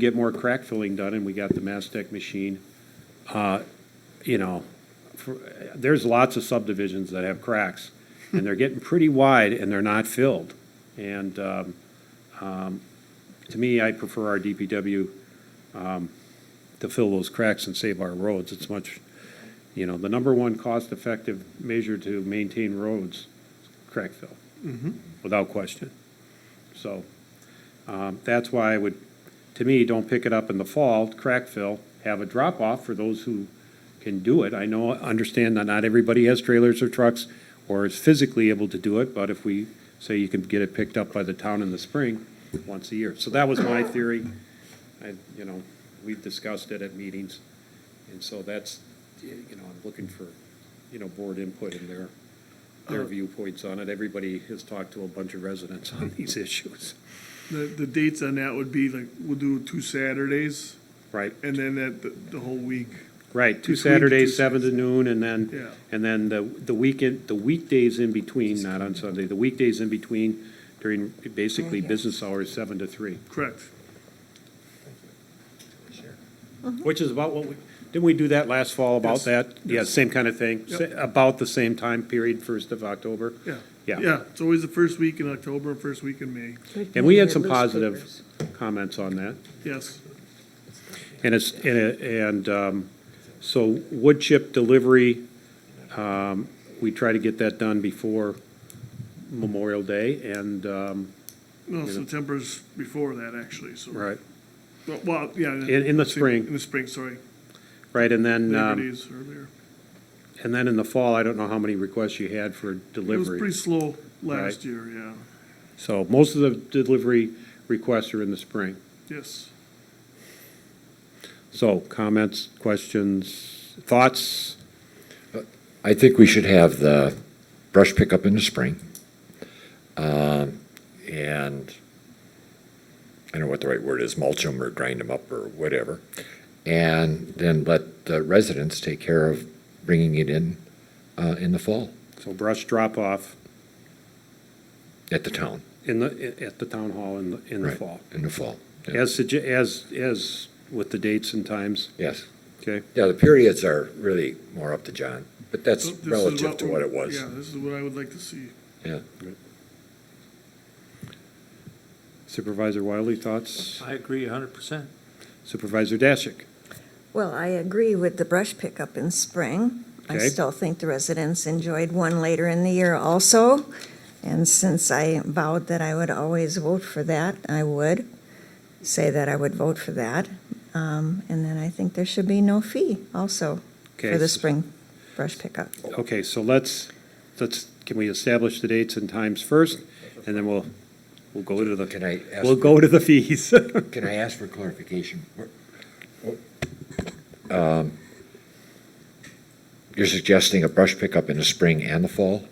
get more crack filling done, and we got the Mastech machine. Uh, You know, for- there's lots of subdivisions that have cracks, and they're getting pretty wide, and they're not filled. And um, um, to me, I prefer our DPW um, to fill those cracks and save our roads. It's much, you know, the number one cost-effective measure to maintain roads, is crack fill, without question. So um, That's why I would, to me, don't pick it up in the fall, crack fill, have a drop-off for those who can do it. I know, understand that not everybody has trailers or trucks or is physically able to do it, but if we say you can get it picked up by the town in the spring, once a year. So that was my theory. I, you know, we've discussed it at meetings, and so that's, you know, I'm looking for, you know, board input and their, their viewpoints on it. Everybody has talked to a bunch of residents on these issues, The, the dates on that would be like, we'll do two Saturdays right? and then that, the, the whole week. Right, two Between the two Saturdays, seven to noon, and then, Yeah. and then the, the weekend, the weekdays in between, not on Sunday, the weekdays in between during basically business hours, seven to three, Correct. which is about what we, didn't we do that last fall about Yes, that? Yeah, same kind of thing, Yep. sa- about the same time period, first of October. Yeah. Yeah. Yeah. It's always the first week in October and first week in May. And we had some positive comments on that. Yes. And it's, and, it- and, um, so wood chip delivery, um, we try to get that done before Memorial Day, and, um, No, September's before that actually, so. right, Well, Well, yeah. In- in the spring. In the spring, sorry. right, and then, Labor um, Day's earlier. and then in the fall, I don't know how many requests you had for It was delivery. pretty slow Right. last year, yeah. So most of the delivery requests are in the spring. Yes. So comments, questions, thoughts? I think we should have the brush pickup in the spring. Um, And, I don't know what the right word is, mulch them or grind them up or whatever. And then let the residents take care of bringing it in, uh, in the fall So brush drop off at the town. in the, at the town hall in, the in the Right, fall. In the fall. yeah. As, sugge- as, as with the dates and times, Yes. okay? Yeah, the periods are really more up to John, but that's So this is relative to we- what it was. Yeah, this is what I would like to see. Yeah. Supervisor Wiley, thoughts? I agree hundred percent. Supervisor Dashick? Well, I agree with the brush pickup in spring. I Okay. still think the residents enjoyed one later in the year also. And since I vowed that I would always vote for that, I would say that I would vote for that. Um, And then I think there should be no fee also Okay, for the so- spring brush pickup. Okay, so let's, let's, can we establish the dates and times first? And then we'll, we'll go to Can the, I ask? we'll go to the fees. Can I ask for clarification? Um, You're suggesting a brush pickup in the spring and the fall?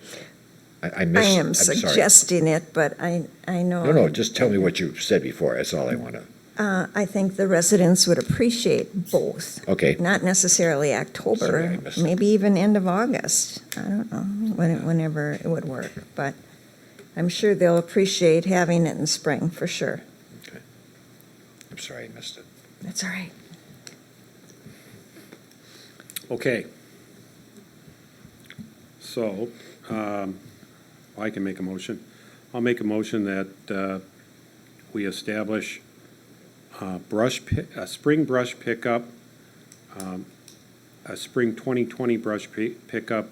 I, I I missed. am I'm sorry. suggesting it, but I, I know. No, no, just tell me what you said before, that's all I want to, Uh, I think the residents would appreciate both. okay. Not necessarily Sorry, I October, missed it. maybe even end of August. I don't know, when- whenever it would work. But I'm sure they'll appreciate having it in spring, for sure. I'm sorry, I missed it. That's all right. Okay. So, um, I can make a motion. I'll make a motion that, uh, we establish, uh, brush, pi- a spring brush pickup, um, a spring 2020 brush pi- pickup,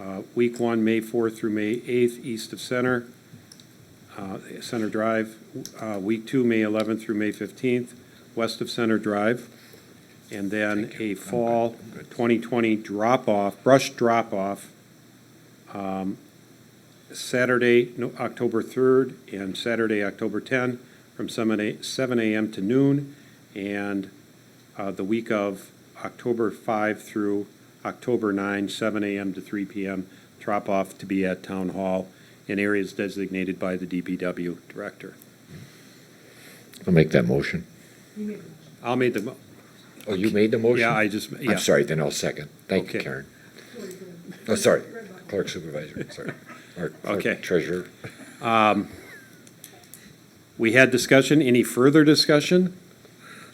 uh, week one, May 4th through May 8th, east of Center, uh, Center Drive, uh, week two, May 11th through May 15th, west of Center Drive, and then a fall 2020 drop-off, brush drop-off, um, Saturday, no- October 3rd, and Saturday, October 10, from 7 a- 7 a.m. to noon, and uh, the week of October 5 through October 9, 7 a.m. to 3 p.m., drop-off to be at Town Hall in areas designated by the DPW Director. I'll make that motion. I'll make the, mo- Oh, you made the motion? yeah, I just, yeah. I'm sorry, then I'll second. Thank you, Okay. Karen. Oh, sorry, clerk supervisor, sorry. Or clerk Okay. Treasurer. We had discussion. Any further discussion?